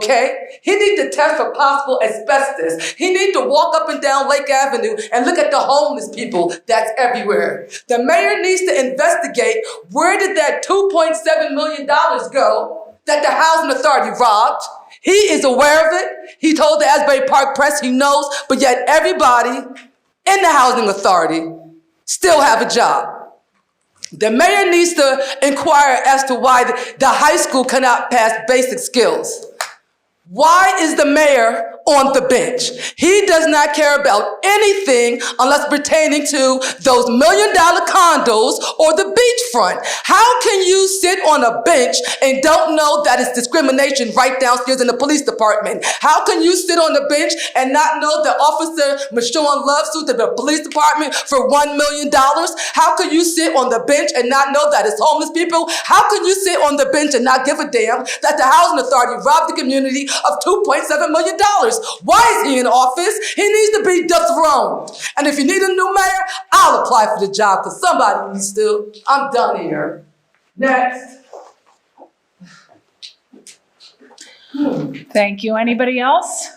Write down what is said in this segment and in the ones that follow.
Okay? He need to test for possible asbestos. He need to walk up and down Lake Avenue and look at the homeless people that's everywhere. The mayor needs to investigate where did that $2.7 million go that the housing authority robbed? He is aware of it. He told the Asbury Park Press he knows, but yet everybody in the housing authority still have a job. The mayor needs to inquire as to why the, the high school cannot pass basic skills. Why is the mayor on the bench? He does not care about anything unless pertaining to those million dollar condos or the beachfront. How can you sit on a bench and don't know that it's discrimination right downstairs in the police department? How can you sit on the bench and not know that Officer Michonne Love sued the police department for one million dollars? How can you sit on the bench and not know that it's homeless people? How can you sit on the bench and not give a damn that the housing authority robbed the community of $2.7 million? Why is he in office? He needs to be dethroned. And if you need a new mayor, I'll apply for the job because somebody needs to. I'm done here. Next. Thank you. Anybody else?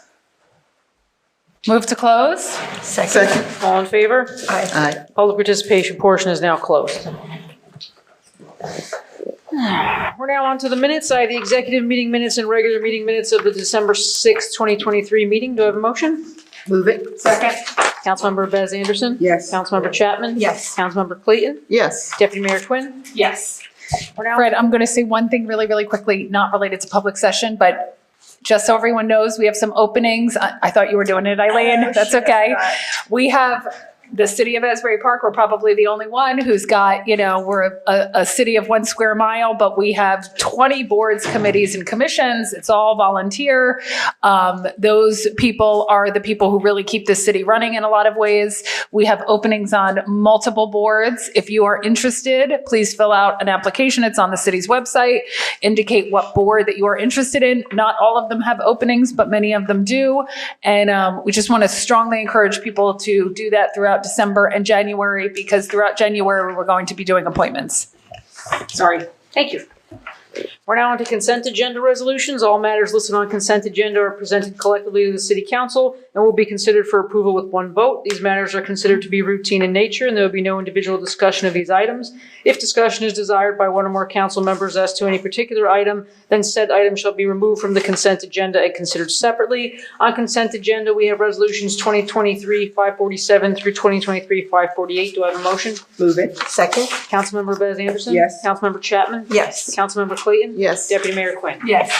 Move to close? Second. All in favor? Aye. Public participation portion is now closed. We're now on to the minutes. I have the executive meeting minutes and regular meeting minutes of the December 6, 2023 meeting. Do I have a motion? Move it. Second. Councilmember Bez Anderson? Yes. Councilmember Chapman? Yes. Councilmember Clayton? Yes. Deputy Mayor Quinn? Yes. We're now Fred, I'm going to say one thing really, really quickly, not related to public session, but just so everyone knows, we have some openings. I I thought you were doing it, Eileen. That's okay. We have the city of Asbury Park, we're probably the only one who's got, you know, we're a, a city of one square mile, but we have 20 boards, committees, and commissions. It's all volunteer. Um, Those people are the people who really keep the city running in a lot of ways. We have openings on multiple boards. If you are interested, please fill out an application. It's on the city's website. Indicate what board that you are interested in. Not all of them have openings, but many of them do. And um, we just want to strongly encourage people to do that throughout December and January because throughout January, we're going to be doing appointments. Sorry. Thank you. We're now on to consent agenda resolutions. All matters listed on consent agenda are presented collectively to the city council and will be considered for approval with one vote. These matters are considered to be routine in nature and there will be no individual discussion of these items. If discussion is desired by one or more council members as to any particular item, then said item shall be removed from the consent agenda and considered separately. On consent agenda, we have resolutions 2023-547 through 2023-548. Do I have a motion? Move it. Second? Councilmember Bez Anderson? Yes. Councilmember Chapman? Yes. Councilmember Clayton? Yes. Deputy Mayor Quinn. Yes.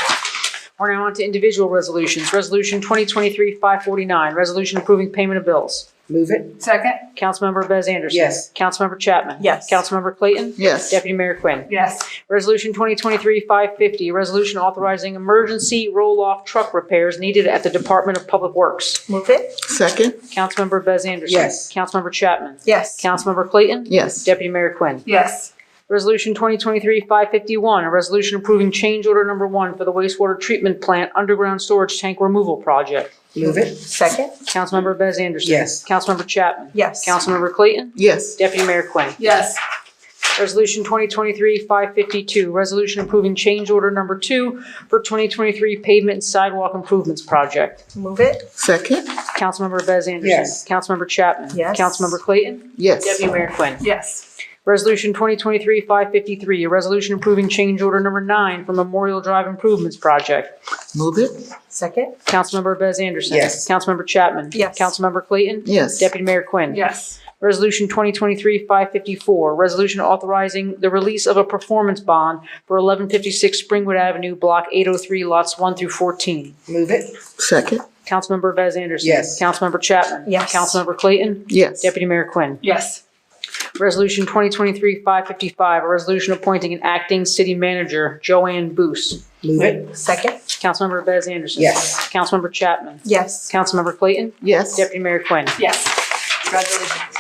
We're now on to individual resolutions. Resolution 2023-549, resolution approving payment of bills. Move it. Second? Councilmember Bez Anderson. Yes. Councilmember Chapman. Yes. Councilmember Clayton. Yes. Deputy Mayor Quinn. Yes. Resolution 2023-550, resolution authorizing emergency roll-off truck repairs needed at the Department of Public Works. Move it? Second. Councilmember Bez Anderson. Yes. Councilmember Chapman. Yes. Councilmember Clayton. Yes. Deputy Mayor Quinn. Yes. Resolution 2023-551, a resolution approving change order number one for the wastewater treatment plant underground storage tank removal project. Move it. Second? Councilmember Bez Anderson. Yes. Councilmember Chapman. Yes. Councilmember Clayton. Yes. Deputy Mayor Quinn. Yes. Resolution 2023-552, resolution approving change order number two for 2023 pavement and sidewalk improvements project. Move it? Second. Councilmember Bez Anderson. Yes. Councilmember Chapman. Yes. Councilmember Clayton. Yes. Deputy Mayor Quinn. Yes. Resolution 2023-553, a resolution approving change order number nine for Memorial Drive Improvements Project. Move it. Second? Councilmember Bez Anderson. Yes. Councilmember Chapman. Yes. Councilmember Clayton. Yes. Deputy Mayor Quinn. Yes. Resolution 2023-554, resolution authorizing the release of a performance bond for 1156 Springwood Avenue, Block 803, lots 1 through 14. Move it. Second. Councilmember Bez Anderson. Yes. Councilmember Chapman. Yes. Councilmember Clayton. Yes. Deputy Mayor Quinn. Yes. Resolution 2023-555, a resolution appointing an acting city manager, Joanne Boos. Move it. Second? Councilmember Bez Anderson. Yes. Councilmember Chapman. Yes. Councilmember Clayton. Yes. Deputy Mayor Quinn. Yes. Congratulations.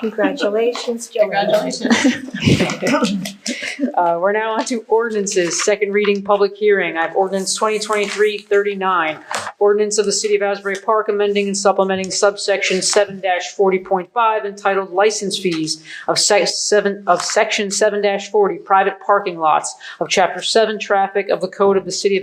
Congratulations, Joanne. Uh, We're now on to ordinances, second reading, public hearing. I have ordinance 2023-39, ordinance of the City of Asbury Park amending and supplementing subsection 7-40.5 entitled License Fees of Sec- 7, of Section 7-40 Private Parking Lots of Chapter 7 Traffic of the Code of the City of